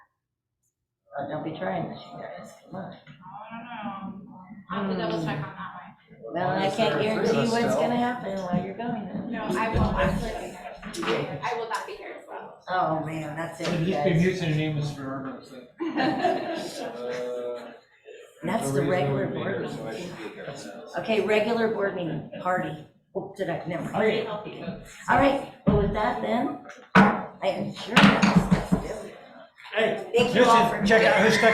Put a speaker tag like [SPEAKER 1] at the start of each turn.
[SPEAKER 1] but they'll be trying this year, come on.
[SPEAKER 2] I don't know. I have to double check on that one.
[SPEAKER 1] Well, I
[SPEAKER 3] There are
[SPEAKER 1] can't
[SPEAKER 3] three of
[SPEAKER 1] guarantee
[SPEAKER 3] us
[SPEAKER 1] what's
[SPEAKER 3] still.
[SPEAKER 1] gonna happen while you're going then.
[SPEAKER 2] No, I will absolutely. I will not be here as well.
[SPEAKER 1] Oh, man, that's it,
[SPEAKER 4] He's
[SPEAKER 1] you
[SPEAKER 4] been
[SPEAKER 1] guys.
[SPEAKER 4] using names forever, so.
[SPEAKER 3] Uh,
[SPEAKER 1] That's
[SPEAKER 3] no
[SPEAKER 1] the
[SPEAKER 3] reason
[SPEAKER 1] regular
[SPEAKER 3] we made
[SPEAKER 1] board
[SPEAKER 3] her, so I
[SPEAKER 1] meeting.
[SPEAKER 3] should be here.
[SPEAKER 1] Okay, regular board meeting, party. Oh, did I, never. mind.
[SPEAKER 4] Okay,
[SPEAKER 1] All right, well, with that then, I am sure that's, that's it.
[SPEAKER 4] hey,
[SPEAKER 1] Thank you all for.
[SPEAKER 4] listen, check out his